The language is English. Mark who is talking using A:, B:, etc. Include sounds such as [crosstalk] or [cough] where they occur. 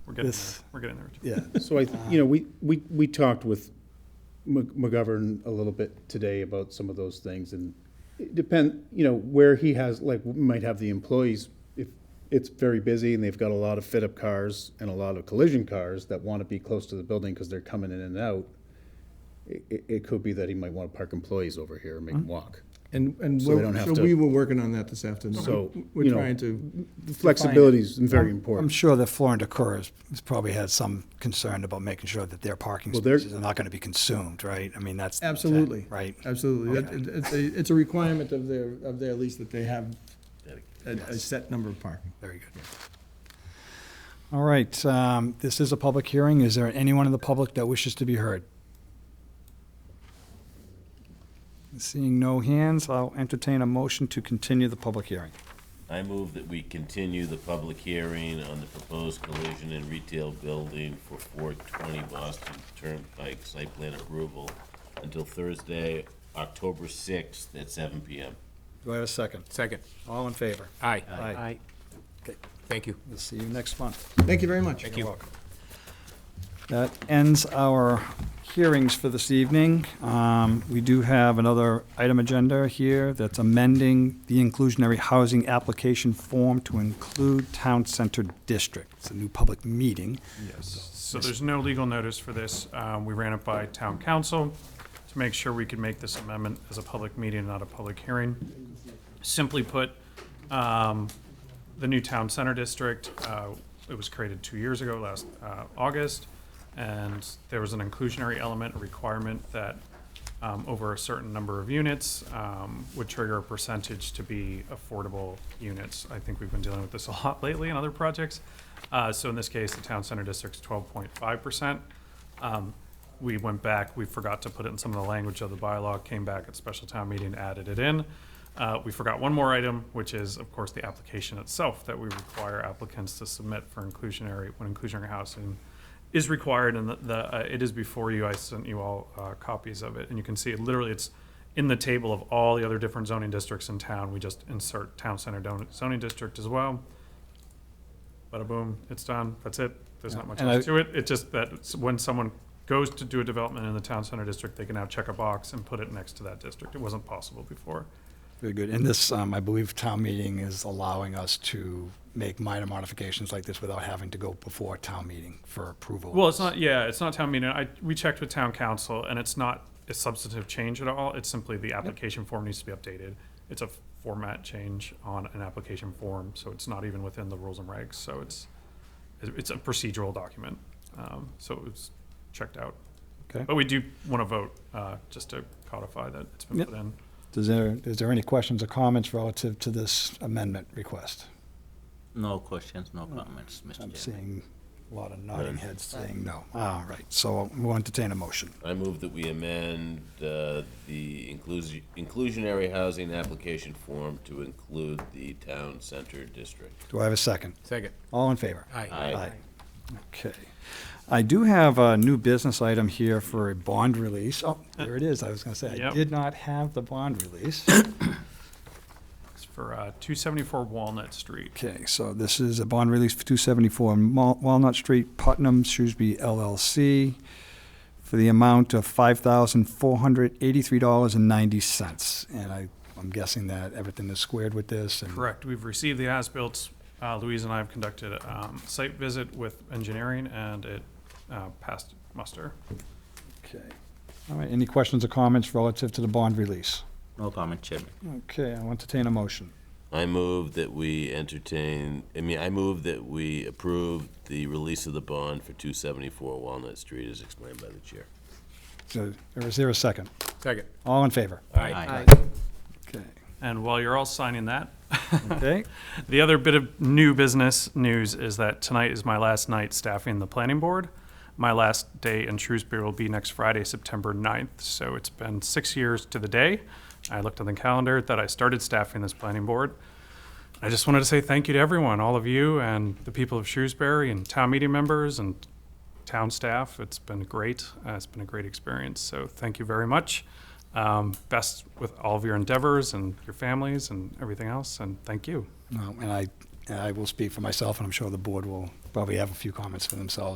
A: We're getting
B: This-
A: there. We're getting there. Richard.
B: Yeah,
C: So I, you know, we, we, we talked with Mc- McGovern a little bit today about some of those things and it depend, you know, where he has, like, we might have the employees, if it's very busy and they've got a lot of fit-up cars and a lot of collision cars that want to be close to the building because they're coming in and out, it, it, it could be that he might want to park employees over here and make them walk.
D: And, and
C: So they don't
D: we're-
C: have
D: so
C: to-
D: we were working on that this afternoon.
C: So,
D: We're
C: you know,
D: trying to,
C: Flexibility is
E: [laughs]
C: very
E: I'm
C: important.
E: sure that Florin Decor has has probably had some concern about making sure that their parking
C: Well, they're-
E: spaces are not going to be consumed, right? I mean, that's. the intent,
D: absolutely.
E: Right?
D: Absolutely. That- it- It's a, it's a requirement of their, of their lease that they have a, a set number of parking.
E: Very good. All right, um, this is a public hearing. Is there anyone in the public that wishes to be heard? Seeing no hands, I'll entertain a motion to continue the public hearing.
F: I move that we continue the public hearing on the proposed collision and retail building for four twenty Boston Turnpike site plan approval until Thursday, October sixth at seven P M.
E: Do I have a second?
G: Second.
E: All in favor?
G: Aye.
E: Aye.
G: Thank you.
E: We'll see you next month.
D: Thank you very much.
G: Thank you.
E: That ends our hearings for this evening. Um, We do have another item agenda here that's amending the inclusionary housing application form to include town center district. It's a new public meeting.
A: So there's no legal notice for this. Um, We ran it by town council to make sure we could make this amendment as a public meeting, not a public hearing. Simply put, um, the new town center district, uh, it was created two years ago, last uh, August, and there was an inclusionary element, a requirement that um, over a certain number of units um, would trigger a percentage to be affordable units. I think we've been dealing with this a lot [laughs] lately in other projects. Uh, So in this case, the town center district's twelve point five percent. We went back, we forgot to put it in some of the language of the bylaw, came back at special town meeting, added it in. Uh, We forgot one more item, which is, of course, the application itself, that we require applicants to submit for inclusionary, when inclusionary housing is required, and the- the, uh, it is before you, I sent you all uh, copies of it, and you can see, it literally, it's in the table of all the other different zoning districts in town, we just insert town center don- zoning district as well. Bada boom, it's done, that's it, there's not much
E: And
A: else
E: I-
A: to it, it's just that it's when someone goes to do a development in the town center district, they can now check a box and put it next to that district, it wasn't possible before.
E: Very good. And this, um, I believe, town meeting is allowing us to make minor modifications like this without having to go before town meeting for approval.
A: Well, it's not, yeah, it's not town meeting. I, we checked with town council and it's not a substantive change at all. It's simply the application form needs to be updated. It's a format change on an application form, so it's not even within the rules and regs, so it's, it's a procedural document. Um, so it was checked out.
E: Okay.
A: But we do want to vote, uh, just to codify that it's been
E: Yep.
A: put in.
E: Is there, is there any questions or comments relative to this amendment request?
H: No questions, no comments, Mr.
E: I'm
H: Chairman.
E: seeing a lot of nodding heads saying no. All right, so we'll entertain a motion.
F: I move that we amend, uh, the inclusi- inclusionary housing application form to include the town center district.
E: Do I have a second?
G: Second.
E: All in favor?
G: Aye.
F: Aye.
E: Okay. I do have a new business item here for a bond release. Oh, there it is. I was going to say, I
A: Yep.
E: did not have the bond release.
A: It's for, uh, two seventy-four Walnut Street.
E: Okay, so this is a bond release for 274 Mal- Walnut Street, Putnam, Shrewsbury LLC, for the amount of $5,483.90. And I, I'm guessing that everything is squared with this and.
A: Correct. We've received the as-built. Uh, Louise and I have conducted a um, site visit with engineering, and it uh, passed muster.
E: Okay. All right, any questions or comments relative to the bond release?
H: No comment, Chairman.
E: Okay, I'll entertain a motion.
F: I move that we entertain, I mean, I move that we approve the release of the bond for 274 Walnut Street as explained by the chair.
E: So, or is there a second?
G: Second.
E: All in favor?
H: Aye.
E: Okay.
A: And while you're all signing that,
E: Okay, [laughs]
A: the other bit of new business news is that tonight is my last night staffing the planning board. My last day in Shrewsbury will be next Friday, September 9th. So it's been six years to the day. I looked on the calendar that I started staffing this planning board. I just wanted to say thank you to everyone, all of you and the people of Shrewsbury and town meeting members and town staff. It's been great. Uh, it's been a great experience. So thank you very much. Um, best with all of your endeavors and your families and everything else. And thank you.
E: No, and I, and I will speak for myself, and I'm sure the board will probably have a few comments for themselves.